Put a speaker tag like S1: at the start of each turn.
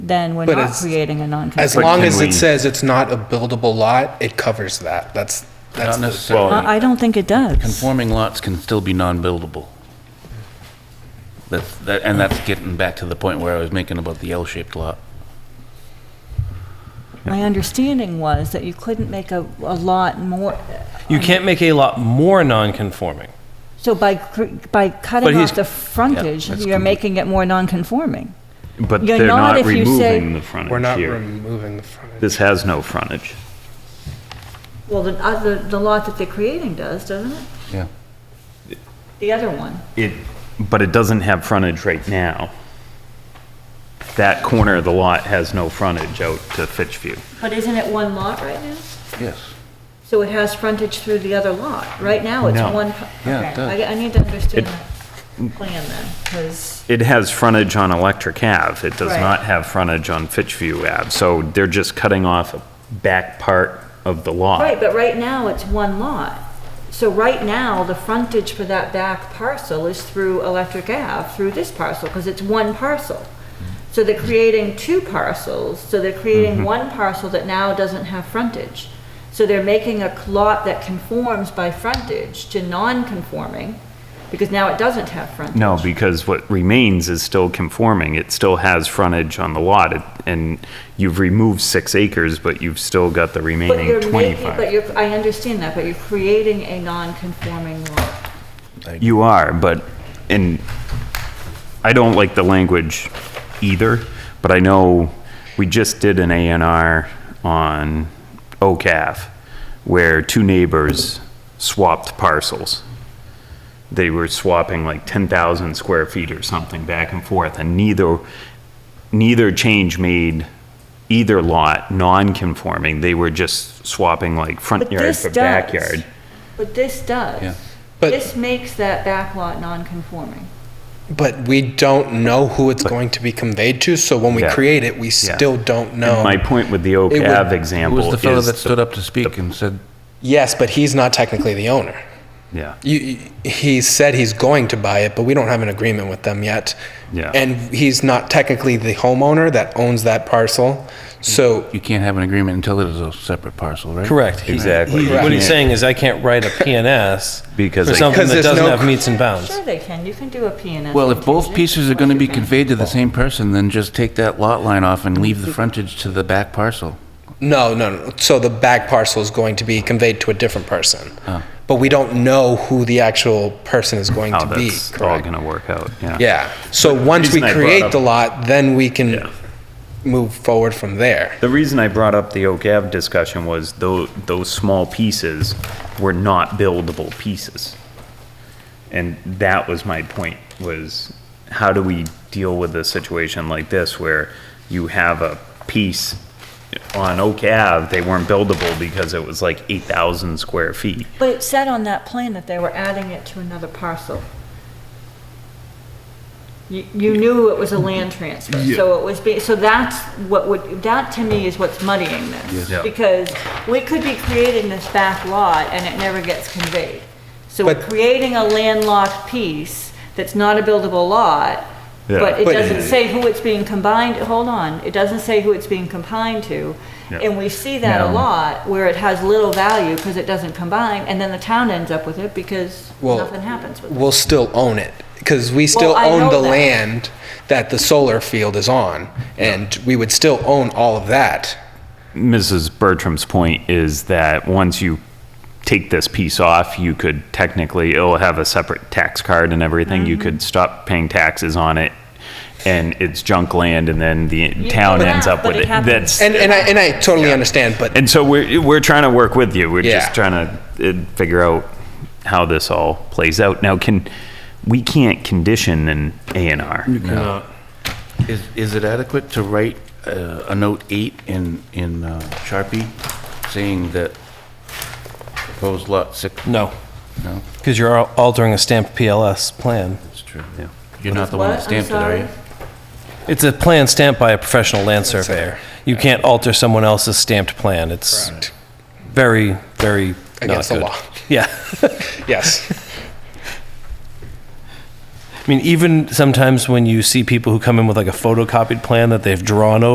S1: then we're
S2: But
S1: not
S2: as-
S1: creating a
S2: As
S1: non-conforming.
S2: long
S3: can
S2: as
S3: we-
S2: it says it's not a buildable lot, it covers that. That's, that's,
S4: Not
S2: the-
S3: Well-
S4: necessarily.
S1: I I don't think it does.
S4: Conforming lots can still be non-buildable. That's, that, and that's getting back to the point where I was making about the L-shaped lot.
S1: My understanding was that you couldn't make a, a lot more,
S5: You can't make a lot more non-conforming.
S1: so by, cr- by
S5: But
S1: cutting
S5: he's-
S1: off the frontage,
S4: that's
S1: you're
S4: complete-
S1: making it more non-conforming.
S3: But
S1: You're
S3: they're
S1: not
S3: not
S1: if you say-
S3: removing the frontage
S2: we're not
S3: here.
S2: removing the front.
S3: This has no frontage.
S1: Well, the, uh, the, the lot that they're creating does, doesn't it?
S4: Yeah.
S1: The other one.
S3: It, but it doesn't have frontage right now. That corner of the lot has no frontage out to Fitchview.
S1: But isn't it one lot right now?
S4: Yes.
S1: So it has frontage through the other lot. Right now, it's
S3: No.
S1: one.
S4: Yeah, it
S1: okay.
S4: does.
S1: I, I need to understand
S3: It-
S1: the plan then, because,
S3: It has frontage on Electric Ave. It does
S1: Right.
S3: not have frontage on Fitchview Ave. So they're just cutting off a back part of the lot.
S1: right, but right now, it's one lot. So right now, the frontage for that back parcel is through Electric Ave, through this parcel, because it's one parcel. So they're creating two parcels, so they're
S3: Mm-hmm.
S1: creating one parcel that now doesn't have frontage. So they're making a lot that conforms by frontage to non-conforming, because now it doesn't have frontage.
S3: No, because what remains is still conforming. It still has frontage on the lot, It- and you've removed six acres, but you've still got the
S1: But
S3: remaining
S1: you're making, but
S3: 25.
S1: you're, I understand that, but you're creating a non-conforming lot.
S3: You are, but, and I don't like the language either, but I know we just did an A and R on Oak Ave, where two neighbors swapped parcels. They were swapping like 10,000 square feet or something back and forth, and neither, neither change made either lot non-conforming. They were just swapping like front
S1: But
S3: yard
S1: this
S3: for
S1: does.
S3: backyard.
S1: But this does.
S2: But,
S1: This makes that back lot non-conforming.
S2: but we don't know who it's going to be conveyed to, so when we
S3: Yeah.
S2: create it, we
S3: Yeah.
S2: still don't know.
S3: My point with the Oak
S2: It would-
S3: Ave
S4: Who
S3: example is.
S4: was the fellow that
S3: the-
S4: stood up to speak and said,
S2: Yes, but he's not technically the owner.
S3: Yeah.
S2: You, he said he's going to buy it, but we don't have an agreement with them yet.
S3: Yeah.
S2: And he's not technically the homeowner that owns that parcel. So
S4: you can't have an agreement until it is a separate parcel, right?
S5: Correct. He-
S3: Exactly.
S5: he- What he's saying is I can't write a PNS
S3: Because
S5: for
S3: I-
S5: something
S2: Because
S5: that
S2: there's
S5: doesn't
S2: no
S5: have
S2: cr-
S5: meets and bounds.
S1: Sure they can, you can do a P and S.
S4: Well, if both
S1: contingent.
S4: pieces are gonna be conveyed to the same person, then just take that lot line off and leave the frontage to the back parcel.
S2: no, no, no. So the back parcel is going to be conveyed to a different person.
S4: Oh.
S2: But we don't know who the actual person is going
S3: How
S2: to be.
S3: Oh, that's all
S2: Correct.
S3: going to work out, yeah.
S2: Yeah. So once we
S3: reason I brought
S2: create
S3: up-
S2: the lot, then we can
S3: Yeah.
S2: move forward from there.
S3: The reason I brought up the Oak Ave discussion was those, those small pieces were not buildable pieces. And that was my point, was how do we deal with a situation like this where you have a piece on Oak Ave, they weren't buildable because it was like 8,000 square feet.
S1: But it said on that plan that they were adding it to another parcel. You, you knew it was a land transfer, so it was, be- so that's what would, that to me is what's muddying this.
S3: Yeah.
S1: Because we could be creating this back lot and it never gets conveyed. So we're
S2: But-
S1: creating a landlocked piece that's not a buildable lot, but it
S2: But-
S1: doesn't say who it's being combined, hold on, it doesn't say who it's being combined to.
S3: Yeah.
S1: And we see that a
S3: No.
S1: lot where it has little value because it doesn't combine, and then the town ends up with it because
S2: Well,
S1: nothing happens with it.
S2: We'll still own it because we still
S1: Well, I know
S2: own the
S1: that.
S2: land that the solar field is on, and we would still own all of that.
S3: Mrs. Bertram's point is that once you take this piece off, you could technically, it'll have a separate tax card and everything. You
S1: Mm-hmm.
S3: could stop paying taxes on it and it's junk land and then the town
S1: but-
S3: ends up
S1: but
S3: with
S1: it
S3: it.
S1: happens.
S3: That's,
S2: And and I and I totally understand, but
S3: and so we're, we're trying to work with you. We're just
S2: Yeah.
S3: trying to uh, figure out how this all plays out. Now, can, we can't condition an A and R.
S4: Is, is it adequate to write uh, a note eight in, in uh, Sharpie saying that proposed lot six?
S5: No,
S4: No,
S5: because you're al- altering a stamped PLS plan.
S4: that's true. You're not the one that
S1: What? I'm
S4: stamped it, are you?
S1: sorry.
S5: It's a plan stamped by a professional land surveyor. You can't alter someone else's stamped plan. It's
S2: Correct.
S5: very, very not
S2: Against the
S5: good.
S2: law.
S5: Yeah.
S2: yes,
S5: I mean, even sometimes when you see people who come in with like a photocopied plan that they've drawn over.